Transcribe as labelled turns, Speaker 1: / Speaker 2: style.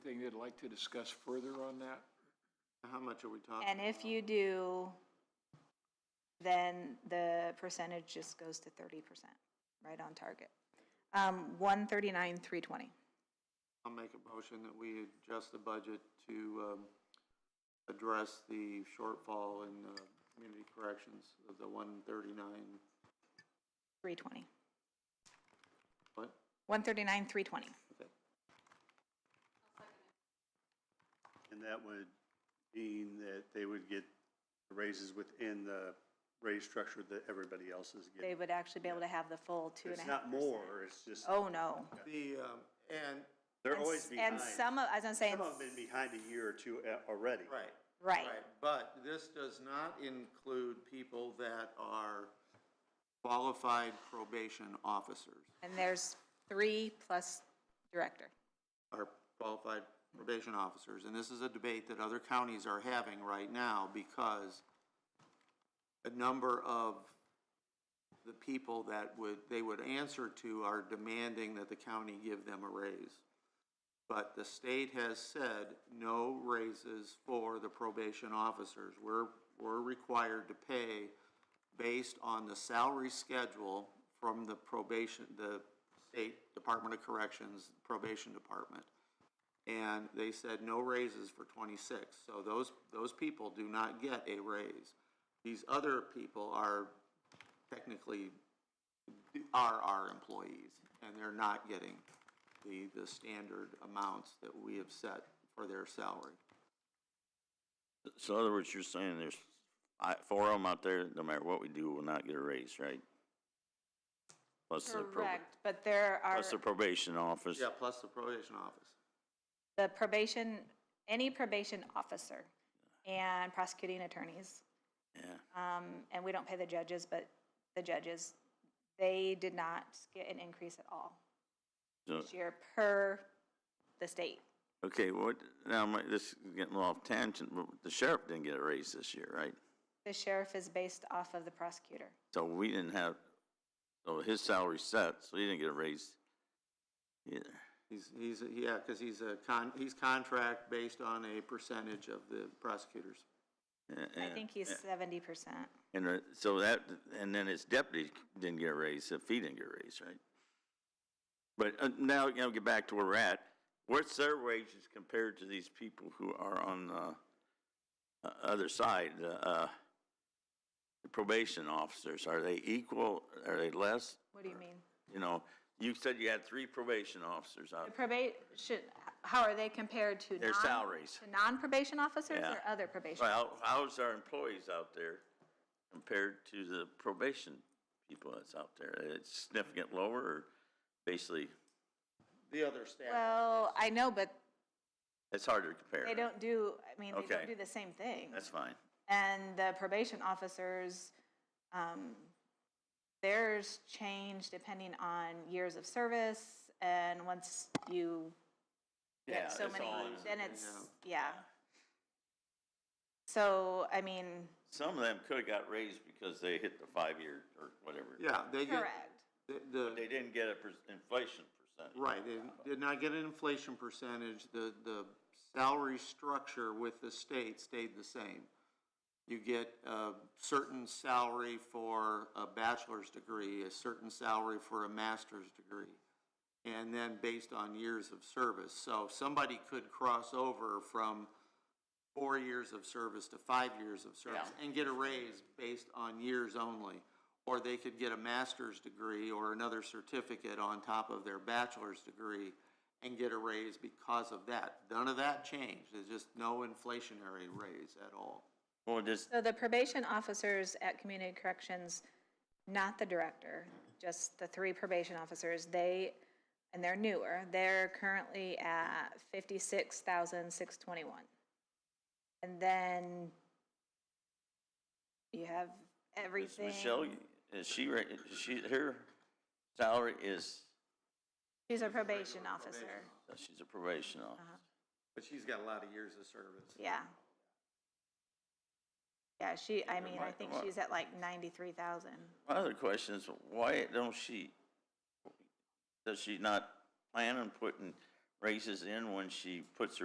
Speaker 1: they'd like to discuss further on that?
Speaker 2: How much are we talking?
Speaker 3: And if you do, then the percentage just goes to thirty percent, right on target. Um, one thirty-nine, three twenty.
Speaker 2: I'll make a motion that we adjust the budget to, um, address the shortfall in, uh, community corrections of the one thirty-nine,
Speaker 3: Three twenty.
Speaker 2: what?
Speaker 3: One thirty-nine, three twenty.
Speaker 2: Okay. And that would mean that they would get raises within the raise structure that everybody else is
Speaker 3: They would actually be able to have the full two and a half. percent.
Speaker 2: it's just.
Speaker 3: Oh, no.
Speaker 2: The, um, and.
Speaker 4: They're
Speaker 3: And
Speaker 4: always
Speaker 3: s-
Speaker 4: behind.
Speaker 3: And some of, as I'm saying,
Speaker 4: Some of them have been behind a year or two uh, already.
Speaker 2: Right.
Speaker 3: right,
Speaker 2: But this does not include people that are qualified probation officers,
Speaker 3: and there's three plus director.
Speaker 2: are qualified probation officers. And this is a debate that other counties are having right now because a number of the people that would, they would answer to are demanding that the county give them a raise. But the state has said no raises for the probation officers. We're, we're required to pay based on the salary schedule from the probation, the State Department of Corrections Probation Department. And they said no raises for twenty-six, so those, those people do not get a raise. These other people are technically, are our employees, and they're not getting the, the standard amounts that we have set for their salary.
Speaker 5: So in other words, you're saying there's fi- four of them out there, no matter what we do, will not get a raise, right? Plus the prob-
Speaker 3: Correct, but there are,
Speaker 5: plus the probation office.
Speaker 2: Yeah, plus the probation office.
Speaker 3: the probation, any probation officer and prosecuting attorneys,
Speaker 5: Yeah.
Speaker 3: um, and we don't pay the judges, but the judges, they did not get an increase at all
Speaker 5: So,
Speaker 3: this year per the state.
Speaker 5: okay, what, now, my- this is getting a little off tangent, but the sheriff didn't get a raise this year, right?
Speaker 3: The sheriff is based off of the prosecutor.
Speaker 5: So we didn't have, so his salary set, so he didn't get a raise either.
Speaker 2: He's, he's, yeah, because he's a con, he's contract based on a percentage of the prosecutors.
Speaker 5: A-
Speaker 3: I
Speaker 5: and-
Speaker 3: think he's seventy percent.
Speaker 5: And uh, so that, and then his deputy didn't get a raise, if he didn't get a raise, right? But uh, now, you know, get back to where we're at. What's their wages compared to these people who are on the uh, other side, the uh, the probation officers? Are they equal? Are they less?
Speaker 3: What do you mean?
Speaker 5: You know, you said you had three probation officers
Speaker 3: The
Speaker 5: out.
Speaker 3: probate, should, how are they compared to?
Speaker 5: Uh, Their
Speaker 3: non-
Speaker 5: salaries.
Speaker 3: To non-probation officers
Speaker 5: Yeah.
Speaker 3: or other probation?
Speaker 5: Well, how- how's our employees out there compared to the probation people that's out there? It's significant lower or basically?
Speaker 2: The other staff.
Speaker 3: Well, I know, but
Speaker 5: It's hard to compare.
Speaker 3: they don't do, I mean, they don't
Speaker 5: Okay.
Speaker 3: do the same thing.
Speaker 5: That's fine.
Speaker 3: And the probation officers, um, theirs change depending on years of service. And once you
Speaker 5: Yeah,
Speaker 3: get so
Speaker 5: it's
Speaker 3: many,
Speaker 5: all in-
Speaker 3: then it's, yeah. So, I mean,
Speaker 5: Some of them could have got raised because they hit the five-year or whatever.
Speaker 2: Yeah, they get,
Speaker 3: correct.
Speaker 2: the-
Speaker 5: But
Speaker 2: the,
Speaker 5: they didn't get a per- inflation percentage.
Speaker 2: right, they did not get an inflation percentage, the, the salary structure with the state stayed the same. You get a certain salary for a bachelor's degree, a certain salary for a master's degree, and then based on years of service. So somebody could cross over from four years of service to five years of service and get a raise based on years only. Or they could get a master's degree or another certificate on top of their bachelor's degree and get a raise because of that. None of that changed. There's just no inflationary raise at all.
Speaker 5: Well, just,
Speaker 3: So the probation officers at community corrections, not the director, just the three probation officers, they, and they're newer, they're currently at fifty-six thousand six twenty-one. And then you have
Speaker 5: is
Speaker 3: everything.
Speaker 5: Michelle, is she, ra- is she, her salary is,
Speaker 3: She's a probation officer,
Speaker 5: uh, she's a probation officer.
Speaker 2: But she's got a lot of years of service.
Speaker 3: yeah. Yeah, she, I
Speaker 5: Never
Speaker 3: mean, I
Speaker 5: mind,
Speaker 3: think
Speaker 5: come on.
Speaker 3: she's at like ninety-three thousand.
Speaker 5: My other question is, why don't she, does she not plan on putting raises in when she puts her